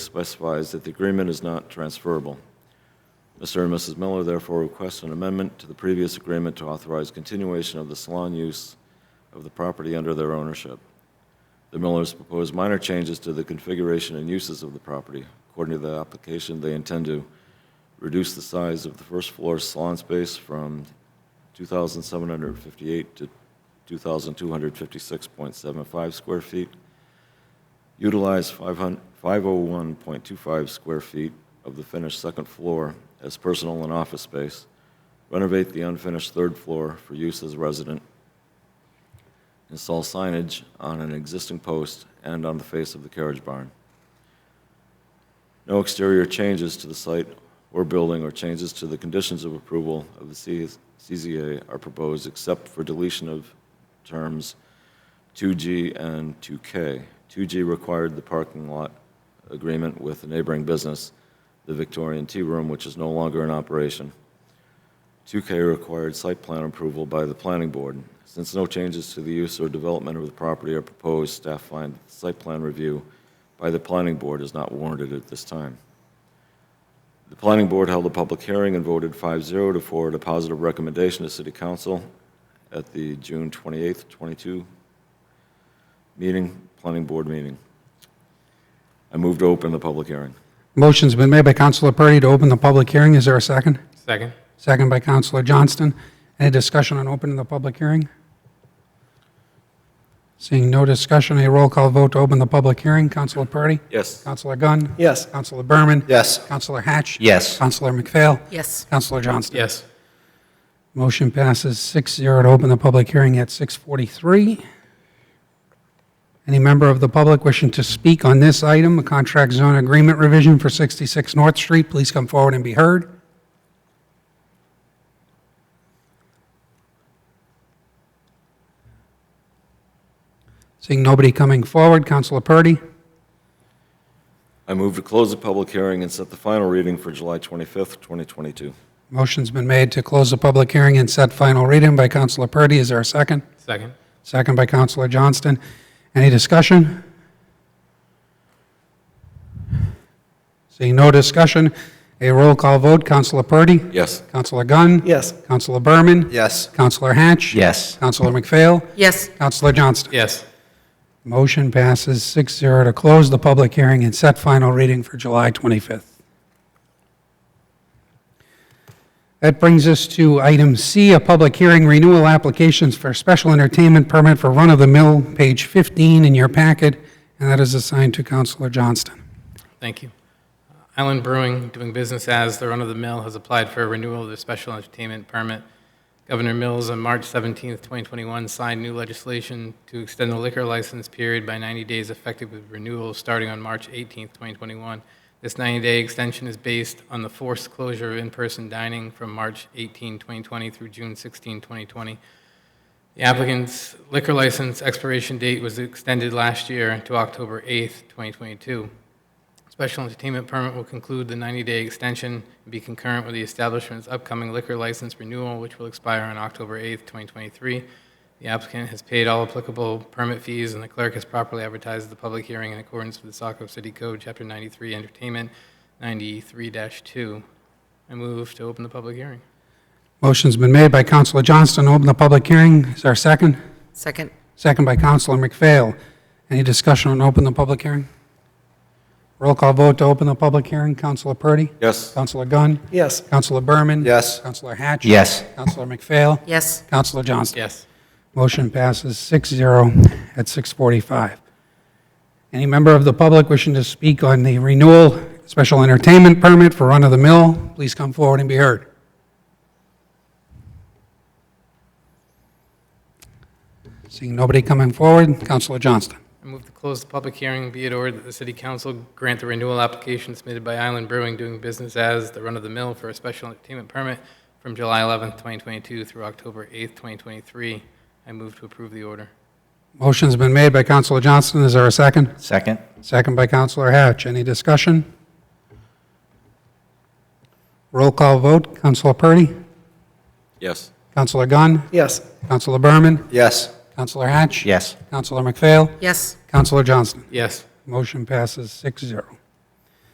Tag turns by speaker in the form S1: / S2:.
S1: specifies that the agreement is not transferable. Mr. and Mrs. Miller therefore request an amendment to the previous agreement to authorize continuation of the salon use of the property under their ownership. The Millers propose minor changes to the configuration and uses of the property. According to the application, they intend to reduce the size of the first floor salon space from 2,758 to 2,256.75 square feet, utilize 500 501.25 square feet of the finished second floor as personal and office space, renovate the unfinished third floor for use as resident, install signage on an existing post and on the face of the carriage barn. No exterior changes to the site or building or changes to the conditions of approval of the CS CZA are proposed except for deletion of terms 2G and 2K. 2G required the parking lot agreement with the neighboring business, the Victorian Tea Room, which is no longer in operation. 2K required site plan approval by the planning board. Since no changes to the use or development of the property are proposed, staff find that the site plan review by the planning board is not warranted at this time. The planning board held a public hearing and voted 5-0 to forward a positive recommendation to city council at the June 28th, 22 meeting, planning board meeting. I move to open the public hearing.
S2: Motion's been made by Counselor Purdy to open the public hearing. Is there a second?
S3: Second.
S2: Second by Counselor Johnston. Any discussion on opening the public hearing? Seeing no discussion, a roll call vote to open the public hearing. Counselor Purdy?
S1: Yes.
S2: Counselor Gunn?
S4: Yes.
S2: Counselor Berman?
S4: Yes.
S2: Counselor Hatch?
S4: Yes.
S2: Counselor McPhail?
S5: Yes.
S2: Counselor Johnston?
S3: Yes.
S2: Motion passes 6-0 to open the public hearing at 6:43. Any member of the public wishing to speak on this item, a contract zone agreement revision for 66 North Street, please come forward and be heard. Seeing nobody coming forward, Counselor Purdy,
S1: I move to close the public hearing and set the final reading for July 25th, 2022.
S2: motion's been made to close the public hearing and set final reading by Counselor Purdy. Is there a second?
S3: Second.
S2: Second by Counselor Johnston. Any discussion? Seeing no discussion, a roll call vote. Counselor Purdy?
S1: Yes.
S2: Counselor Gunn?
S4: Yes.
S2: Counselor Berman?
S4: Yes.
S2: Counselor Hatch?
S4: Yes.
S2: Counselor McPhail?
S5: Yes.
S2: Counselor Johnston?
S3: Yes.
S2: Motion passes 6-0 to close the public hearing and set final reading for July 25th. That brings us to item C, a public hearing renewal applications for special entertainment permit for run-of-the-mill, page 15 in your packet, and that is assigned to Counselor Johnston.
S3: Thank you. Island Brewing, doing business as the Run of the Mill, has applied for a renewal of their special entertainment permit. Governor Mills on March 17, 2021, signed new legislation to extend the liquor license period by 90 days effective with renewal starting on March 18, 2021. This 90-day extension is based on the forced closure of in-person dining from March 18, 2020 through June 16, 2020. The applicant's liquor license expiration date was extended last year to October 8th, 2022. Special entertainment permit will conclude the 90-day extension and be concurrent with the establishment's upcoming liquor license renewal, which will expire on October 8th, 2023. The applicant has paid all applicable permit fees, and the clerk has properly advertised the public hearing in accordance with the Saco City Code, Chapter 93, Entertainment, 93-2. I move to open the public hearing.
S2: Motion's been made by Counselor Johnston to open the public hearing. Is there a second?
S5: Second.
S2: Second by Counselor McPhail. Any discussion on open the public hearing? Roll call vote to open the public hearing. Counselor Purdy?
S1: Yes.
S2: Counselor Gunn?
S4: Yes.
S2: Counselor Berman?
S4: Yes.
S2: Counselor Hatch?
S4: Yes.
S2: Counselor McPhail?
S5: Yes.
S2: Counselor Johnston?
S3: Yes.
S2: Motion passes 6-0 at 6:45. Any member of the public wishing to speak on the renewal special entertainment permit for Run of the Mill, please come forward and be heard. Seeing nobody coming forward, Counselor Johnston.
S3: I move to close the public hearing, be it ordered that the city council grant the renewal application submitted by Island Brewing doing business as the run-of-the-mill for a special entertainment permit from July 11th, 2022 through October 8th, 2023. I move to approve the order.
S2: Motion's been made by Counselor Johnston. Is there a second?
S4: Second?
S2: Second by Counselor Hatch. Any discussion? Roll call vote. Counselor Purdy?
S1: Yes.
S2: Counselor Gunn?
S4: Yes.
S2: Counselor Berman?
S4: Yes.
S2: Counselor Hatch?
S4: Yes.
S2: Counselor McPhail?
S5: Yes.
S2: Counselor Johnston?
S3: Yes.
S2: Motion passes 6-0.